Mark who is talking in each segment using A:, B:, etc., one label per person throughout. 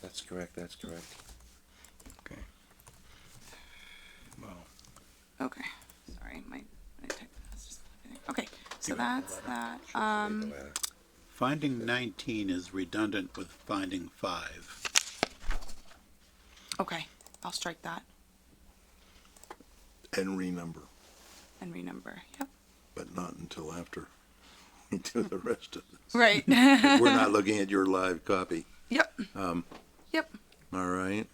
A: That's correct, that's correct.
B: Okay. Well,
C: Okay, sorry, my, my tech is just not getting- okay, so that's that, um,
B: finding nineteen is redundant with finding five.
C: okay, I'll strike that
D: and renumber,
C: and renumber, yep.
D: but not until after we do the rest of this.
C: Right,
D: We're not looking at your live copy,
C: yep,
A: Um,
C: yep,
D: all right?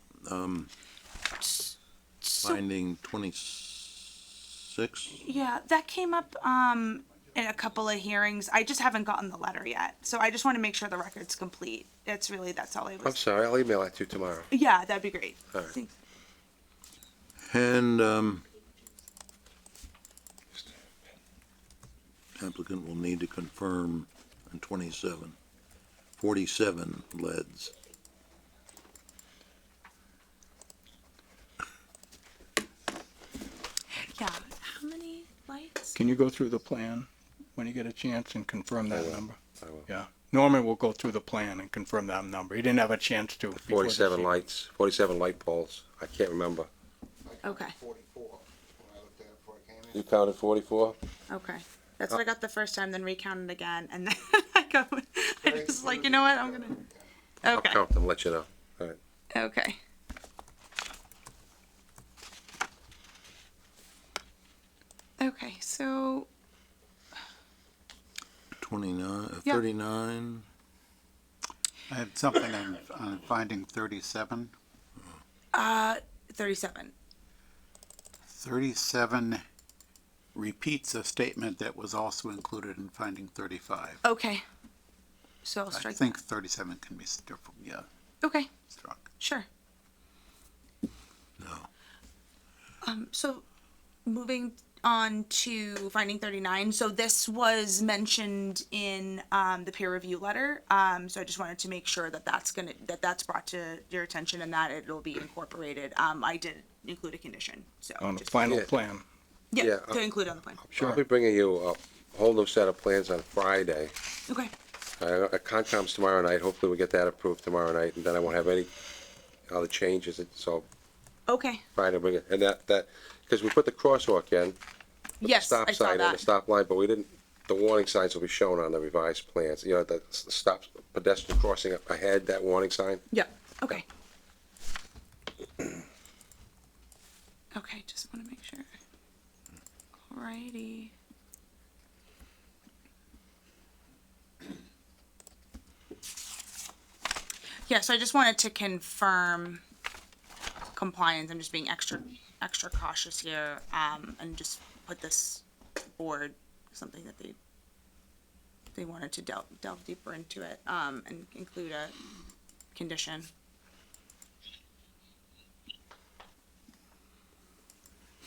C: so,
D: Finding twenty-six,
C: yeah, that came up, um, in a couple of hearings, I just haven't gotten the letter yet, so I just wanna make sure the record's complete, that's really, that's all I
A: I'm
C: was,
A: sorry, I'll email that to you tomorrow.
C: yeah, that'd be great.
A: All right.
C: Thanks.
D: and, um, applicant will need to confirm on twenty-seven, forty-seven leads.
C: Yeah, how many lights?
B: Can you go through the plan when you get a chance and confirm
A: I
B: that
A: will.
B: number?
A: I will.
B: Yeah, Norman will go through the plan and confirm that number. He didn't have a chance to. before this
A: Forty-seven
B: evening.
A: lights, forty-seven light poles. I can't remember.
C: Okay,
A: You counted forty-four?
C: okay,
A: Uh,
C: that's what I got the first time, then recounted again, and then I go, I just like, you know what, I'm gonna,
A: I'll
C: okay.
A: count them, let you know. All right.
C: Okay. Okay, so
D: Twenty-nine, uh,
C: Yeah.
D: thirty-nine,
E: I have something on, on finding thirty-seven.
C: uh 37.
E: Thirty-seven repeats a statement that was also included in finding thirty-five.
C: Okay. So I'll
E: I
C: strike.
E: think thirty-seven can be struck, yeah,
C: Okay,
E: struck.
C: sure.
D: no.
C: Um so moving on to finding 39. So this was mentioned in um the peer review letter. Um so I just wanted to make sure that that's going to that that's brought to your attention and that it'll be incorporated. Um I did include a condition. So
B: On the
C: just-
B: final
A: Yeah.
B: plan.
C: Yeah,
A: Yeah, uh,
C: to include on the plan.
A: I'll be bringing you a whole new set of plans on Friday.
C: Okay.
A: Uh, Concom's tomorrow night, hopefully we get that approved tomorrow night, and then I won't have any other changes, and so
C: Okay.
A: Friday, we'll bring it, and that, that, because we put the crosswalk in,
C: Yes,
A: stop
C: I saw
A: sign and the
C: that.
A: stop line, but we didn't, the warning signs will be shown on the revised plans, you know, the s- stop pedestrian crossing up ahead, that warning sign.
C: Yep, okay. Okay, just wanna make sure. Alrighty. Yeah, so I just wanted to confirm compliance, I'm just being extra, extra cautious here, um, and just put this board, something that they they wanted to delve, delve deeper into it, um, and include a condition.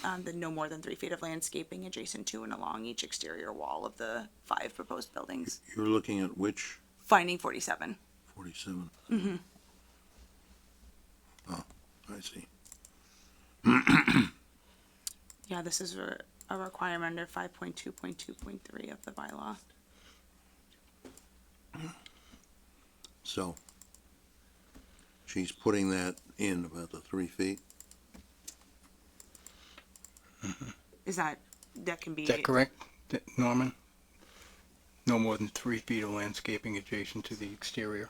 C: Um, the no more than three feet of landscaping adjacent to and along each exterior wall of the five proposed buildings.
D: You're looking at which?
C: Finding forty-seven.
D: 47. Oh, I see.
C: Yeah, this is a, a requirement under five point two point two point three of the bylaw.
D: So she's putting that in about the three feet.
C: Is that, that can be?
B: Is that correct, Th- Norman? No more than three feet of landscaping adjacent to the exterior.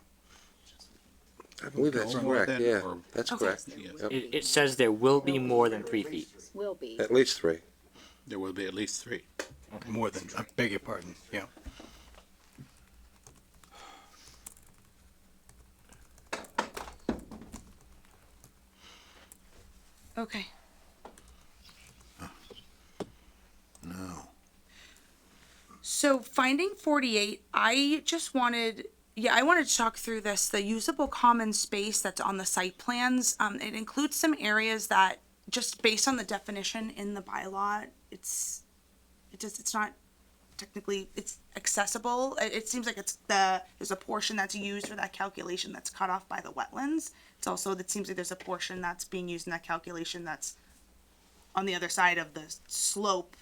A: I believe that's
E: Or
A: correct,
E: then-
A: yeah,
E: or-
A: that's
C: Okay.
A: correct,
F: It, it says there will be more than three feet.
G: Will be.
A: at least three.
E: There will be at least three.
B: More than, I beg your pardon, yeah.
C: Okay,
D: No.
C: so finding forty-eight, I just wanted, yeah, I wanted to talk through this, the usable common space that's on the site plans. Um, it includes some areas that, just based on the definition in the bylaw, it's, it just, it's not technically, it's accessible. It, it seems like it's the, there's a portion that's used for that calculation that's cut off by the wetlands. It's also, it seems like there's a portion that's being used in that calculation that's on the other side of the slope